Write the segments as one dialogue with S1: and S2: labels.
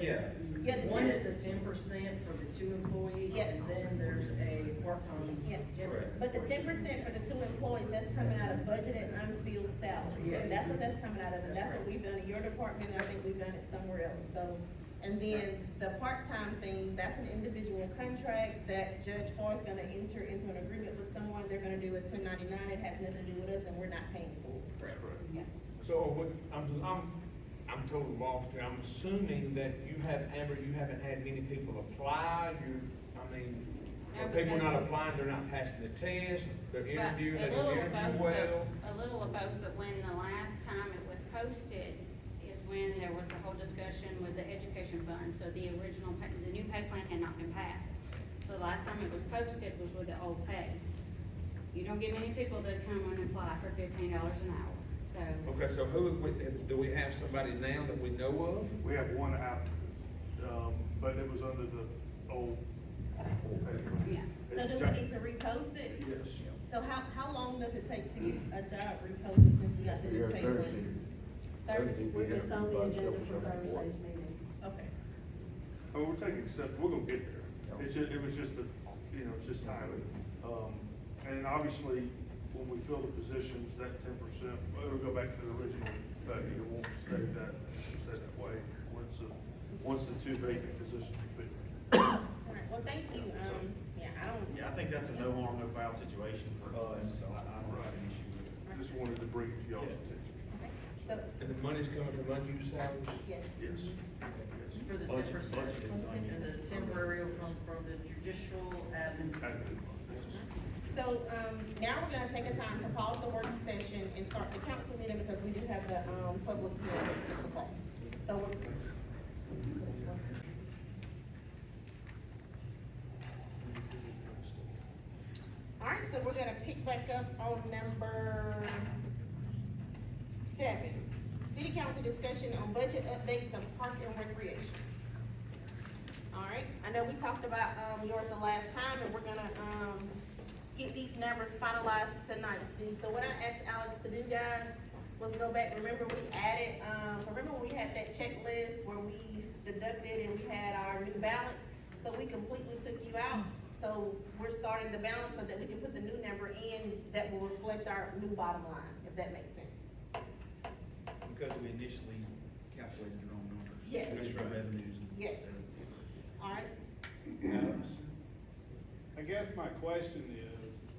S1: Yeah.
S2: Yeah, the
S3: One
S2: ten-
S3: is the ten percent for the two employees,
S2: Yeah.
S3: and then there's a part-time.
S2: Yeah.
S3: ten-
S1: Correct.
S2: But the ten percent for the two employees, that's coming out of budgeted unfilled salaries.
S3: Yes.
S2: That's what that's coming out of, and
S3: That's
S2: that's what
S3: correct.
S2: we've done in your department, and I think we've done it somewhere else, so. And then the part-time thing, that's an individual contract that Judge Farr's gonna enter into an agreement with someone, they're gonna do a ten ninety-nine, it has nothing to do with us, and we're not paying for
S3: Correct.
S2: it. Yeah.
S4: So, what, I'm, I'm, I'm totally lost here, I'm assuming that you have, Amber, you haven't had many people apply, you, I mean, if people are not
S5: Advertising.
S4: applying, they're not passing the test, they're
S5: But
S4: interviewing,
S5: a
S4: they
S5: little
S4: don't
S5: of both,
S4: interview
S5: but-
S4: well.
S5: A little of both, but when the last time it was posted is when there was the whole discussion with the education fund, so the original, pa- the new pay plan had not been passed. So the last time it was posted was with the old pay. You don't get many people that come and apply for fifteen dollars an hour, so.
S4: Okay, so who, have we- have- do we have somebody now that we know
S6: We have one applicant, um, but it was under the old. old paper.
S5: Yeah.
S2: So
S6: It's
S2: do
S6: John-
S2: we need to repost it?
S6: Yes.
S2: So how, how long does it take to get a job reposted since we got the
S7: We
S2: new
S7: have
S2: pay
S7: Thursday.
S2: plan?
S7: Thursday,
S2: Thursday?
S7: we have
S8: It's on the
S7: about
S8: agenda
S7: double
S8: for
S7: something.
S8: Thursday's meeting.
S2: Okay.
S6: I mean, we're taking steps, we're gonna get there. It's ju- it was just a, you know, it's just timing. Um, and obviously, when we fill the positions, that ten percent, it'll go back to the original, but it won't stay that, stay that way, once the, once the two vacant positions are filled.
S2: All right, well, thank you, um, yeah, I don't.
S1: Yeah, I think that's a no harm, no foul situation for us, so I, I don't have an issue with it.
S6: Just wanted to bring it to y'all's attention.
S2: Okay, So,
S4: of, and the money's coming from unused salaries?
S2: yes.
S6: Yes.
S3: For the ten
S1: Budget-
S3: percent,
S1: budget is
S3: and
S1: unused.
S3: the temporary will come from the judicial admin.
S2: So, um, now we're gonna take a time to pause the work session and start the council meeting because we do have the, um, public hearing at six o'clock. So we're, All right, so we're gonna pick back up on number seven. City council discussion on budget update to park and recreation. All right, I know we talked about, um, yours the last time, and we're gonna, um, get these numbers finalized tonight, Steve. So what I asked Alex to do, guys, was go back, remember we added, um, remember when we had that checklist where we deducted and we had our new balance? So we completely took you out, so we're starting the balance so that we can put the new number in that will reflect our new bottom line, if that makes sense.
S1: Because we initially calculated the wrong numbers.
S2: Yes.
S1: Those are Revenues. and
S2: Yes.
S1: stuff.
S2: All right,
S9: I guess my question is,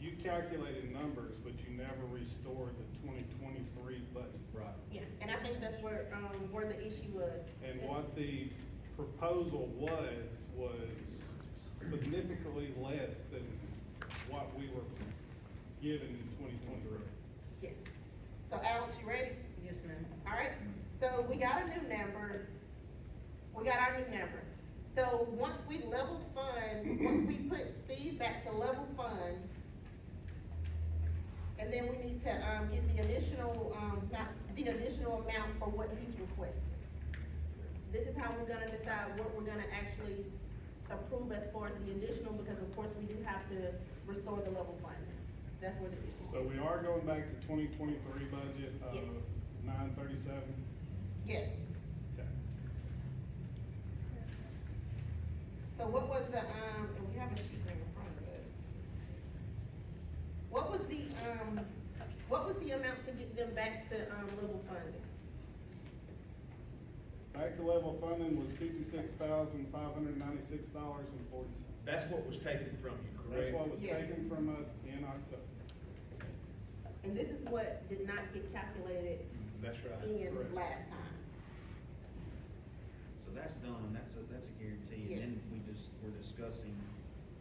S9: you calculated numbers, but you never restored the twenty twenty-three budget.
S1: Right.
S2: yeah, and I think that's where, um, where the issue was.
S9: And what the proposal was, was significantly less than what we were given in twenty twenty-three.
S2: Yes. So Alex, you ready?
S3: Yes, ma'am.
S2: All right, so we got a new number. We got our new number. So once we level fund, once we put Steve back to level fund, and then we need to, um, get the additional, um, not, the additional amount for what he's requested. This is how we're gonna decide what we're gonna actually approve as far as the additional, because of course we do have to restore the level fund. That's where the issue is.
S9: So we are going back to twenty twenty-three budget of
S2: Yes.
S9: nine thirty-seven?
S2: Yes.
S9: Okay.
S2: So what was the, um, and we have a sheet right in front of us. What was the, um, what was the amount to get them back to, um, level funding?
S9: Back to level funding was fifty-six thousand, five hundred ninety-six dollars and forty cents.
S4: That's what was taken from you,
S9: That's
S4: correct?
S9: what was
S2: Yes.
S9: taken from us in October.
S2: And this is what did not get calculated
S4: Mm, That's right.
S2: in
S9: correct.
S2: last time.
S1: So that's done, that's a, that's a guarantee, and then we just, we're discussing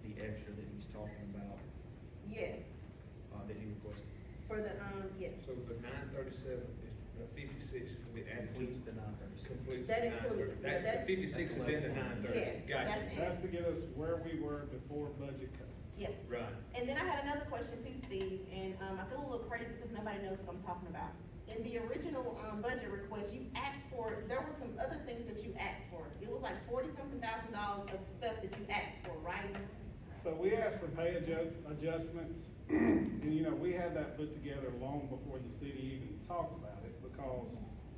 S1: the extra that he's talking about,
S2: Yes,
S1: uh, that he requested.
S2: for the, um, yes.
S4: So the nine thirty-seven, the fifty-six will be added to
S1: Completes the nine thirty-seven.
S4: completes
S2: That
S4: the nine
S2: includes-
S4: thirty. That's, the
S2: that-
S4: fifty-six is in the nine thirty,
S2: Yes,
S4: gotcha,
S2: that's it.
S9: That's to get us where we were before budget cuts.
S2: Yes.
S4: right.
S2: And then I had another question too, Steve, and, um, I feel a little crazy because nobody knows what I'm talking about. In the original, um, budget request, you asked for, there were some other things that you asked for. It was like forty-something thousand dollars of stuff that you asked for, right?
S9: So we asked for pay adjust, adjustments, and you know, we had that put together long before the city even talked about it, because